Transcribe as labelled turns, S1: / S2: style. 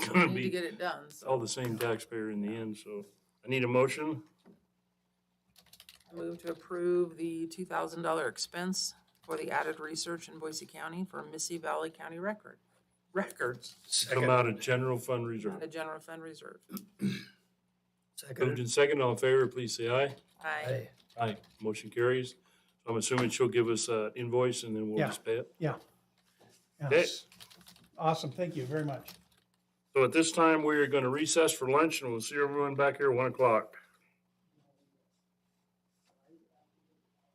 S1: gonna
S2: We need to
S1: be
S2: get it done, so
S1: all the same taxpayer in the end, so I need a motion.
S2: I move to approve the two thousand dollar expense for the added research in Boise County for Missy Valley County Record, records,
S1: Come out of general fund reserve.
S2: the general fund reserve.
S1: Moved
S3: Second.
S1: in second, all in favor, please say aye.
S2: Aye.
S1: Aye, motion carries. I'm assuming she'll give us an invoice and then we'll
S4: Yeah.
S1: just pay it.
S4: Yeah.
S1: Okay.
S4: Yes. Awesome, thank you very much.
S1: So at this time, we are going to recess for lunch and we'll see everyone back here at one o'clock.